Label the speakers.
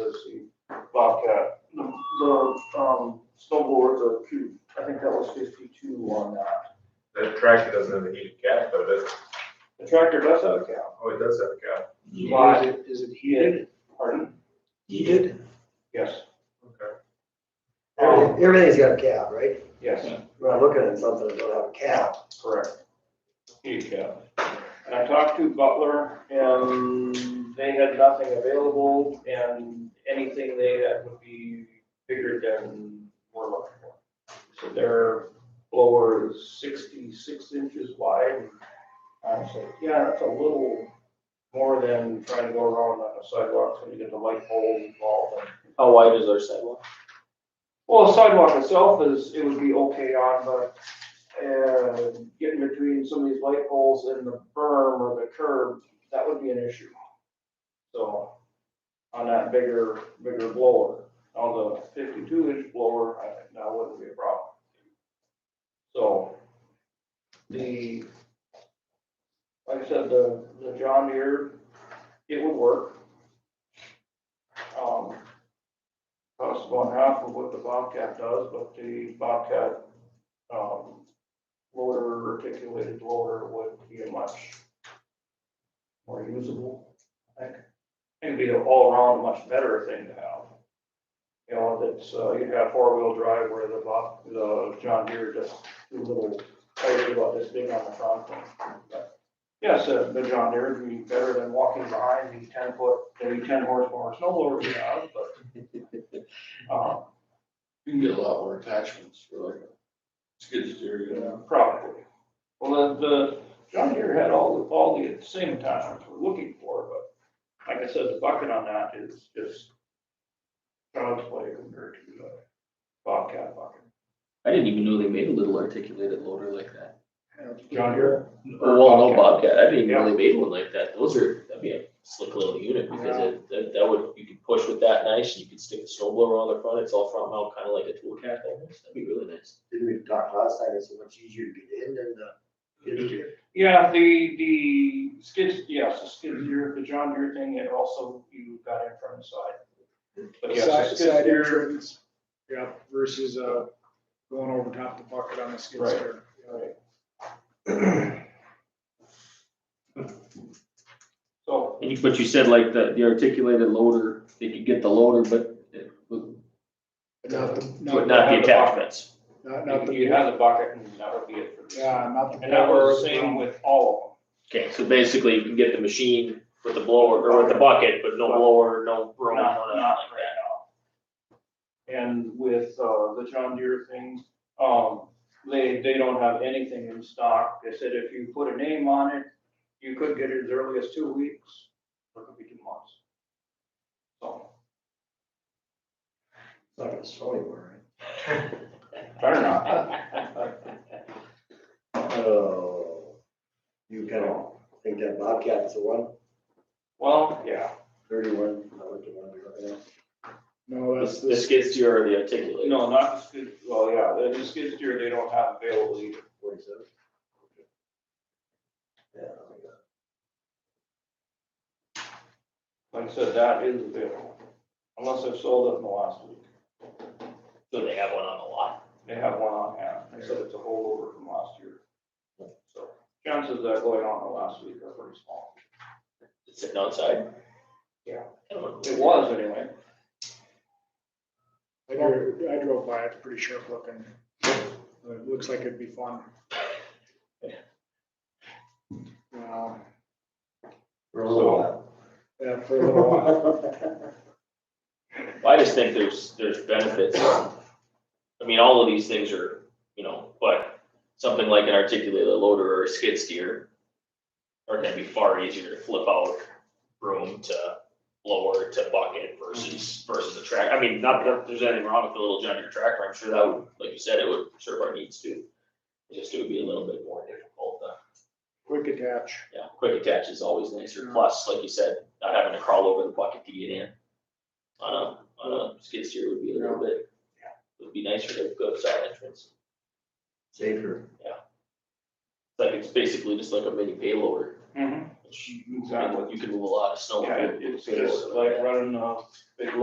Speaker 1: um,
Speaker 2: doesn't have a heated cab though, does it?
Speaker 1: The tractor does have a cab.
Speaker 2: Oh, it does have a cab.
Speaker 1: Why?
Speaker 3: Is it, is it heated?
Speaker 1: Pardon?
Speaker 3: Heated?
Speaker 1: Yes,
Speaker 2: Okay.
Speaker 4: Everything- Everything's got a cab, right?
Speaker 1: yes,
Speaker 4: We're not looking at something that don't have a cab.
Speaker 1: correct. Heated cab. And I talked to Butler and they had nothing available and anything they had would be bigger than we're looking for. So their blower is sixty-six inches wide. I said, yeah, that's a little more than trying to go around on the sidewalk, so you get the light bulb involved and
Speaker 5: How wide is our sidewalk?
Speaker 1: Well, the sidewalk itself is, it would be okay on, but, uh, getting between some of these light poles and the berm or the curb, that would be an issue. So, on that bigger, bigger blower, on the fifty-two inch blower, I think that wouldn't be a problem. So, the, like I said, the, the John Deere, it would work. Um, costs about half of what the Bobcat does, but the Bobcat, um, loader, articulated loader would be a much more usable, I think. It'd be an all-around much better thing to have. You know, that's, uh, you'd have four-wheel drive where the Bob, the John Deere just do little, tires about this big on the front. But, Yes, uh, the John Deere would be better than walking behind the ten-foot, the ten horsepower snow blower we have, but um,
Speaker 6: You can get a lot more attachments for like a skid steer, you know.
Speaker 1: probably. Well, the, the, John Deere had all, all the same attachments we're looking for, but like I said, the bucket on that is just child's play compared to the Bobcat bucket.
Speaker 5: I didn't even know they made a little articulated loader like that.
Speaker 1: John Deere?
Speaker 5: Oh, well,
Speaker 1: Bobcat.
Speaker 5: no Bobcat, I didn't even
Speaker 1: Yeah.
Speaker 5: know they made one like that. Those are, that'd be a slick little unit because it, that, that would, you could push with that nice and you could stick a snow blower on the front. It's all front mount, kind of like a tool cat almost. That'd be really nice.
Speaker 4: Didn't we talk last time, it's so much easier to get in than the, get here.
Speaker 1: Yeah, the, the skids, yes, the skid steer, the John Deere thing, it also, you got in from the side. But yes, the
Speaker 3: Side,
Speaker 1: skid
Speaker 3: side
Speaker 1: steer,
Speaker 3: entrance, yeah, versus, uh, going over top the bucket on the skid
Speaker 1: Right.
Speaker 3: steer.
Speaker 1: Right. So,
Speaker 5: And you, but you said like the, the articulated loader, they could get the loader, but it would
Speaker 3: But not the-
Speaker 5: would not
Speaker 3: not,
Speaker 5: the
Speaker 1: have the bucket.
Speaker 5: attachments.
Speaker 3: not, not
Speaker 1: you
Speaker 3: the,
Speaker 1: have the bucket and that would be it for this.
Speaker 3: yeah, not the.
Speaker 1: And that was the
Speaker 3: blower,
Speaker 1: same
Speaker 3: um,
Speaker 1: with all
Speaker 5: Okay, so basically you can get the machine with the blower or with the bucket, but no blower, no
Speaker 1: of them,
Speaker 5: broom,
Speaker 1: not,
Speaker 5: no nothing
Speaker 1: not
Speaker 5: like that.
Speaker 1: right now. And with, uh, the John Deere thing, um, they, they don't have anything in stock. They said if you put a name on it, you could get it as early as two weeks, or it could be two months. So,
Speaker 4: It's not gonna snow anywhere,
Speaker 1: better not.
Speaker 4: right? Oh, you kind of think that Bobcat is the one,
Speaker 1: Well, yeah,
Speaker 4: thirty-one, I went to one, you're looking at.
Speaker 3: No, that's
Speaker 5: The the
Speaker 3: this,
Speaker 5: skid steer or the articulated.
Speaker 1: no, not the skid, well, yeah, the- the skid steer, they don't have available either.
Speaker 4: Forty-seven? Yeah, oh I think that-
Speaker 1: Like I said, that is available, unless they've sold it in the last week.
Speaker 5: So they have one on the lot.
Speaker 1: They have one on hand, they said it's a holdover from last year. So chances of that going on the last week are pretty small.
Speaker 5: It's sitting outside.
Speaker 1: Yeah.
Speaker 5: I don't know.
Speaker 1: It was anyway.
Speaker 3: I drove, I drove by, it's pretty sharp looking. It looks like it'd be fun. Uh,
Speaker 4: We're a little
Speaker 3: yeah, for a little while.
Speaker 5: I just think there's, there's benefits. I mean, all of these things are, you know, but something like an articulated loader or a skid steer are gonna be far easier to flip out room to blower to bucket versus, versus a track. I mean, not that there's anything wrong with a little John Deere tractor. I'm sure that would, like you said, it would serve our needs too. It's Just it would be a little bit more difficult. uh,
Speaker 3: Quick attach.
Speaker 5: Yeah, quick attach is always nicer.
Speaker 3: Yeah.
Speaker 5: Plus, like you said, not having to crawl over the bucket to get in. On a, on a skid steer would be a little bit, would be nicer to go side entrance.
Speaker 4: safer.
Speaker 5: Like it's basically just like a mini payloader.
Speaker 1: Mm-hmm.
Speaker 5: which
Speaker 1: Exactly.
Speaker 5: You can move a lot of snow.
Speaker 1: Yeah,
Speaker 5: with
Speaker 1: it-
Speaker 5: a
Speaker 1: it's
Speaker 5: payload
Speaker 1: just
Speaker 5: like that.
Speaker 1: like running a big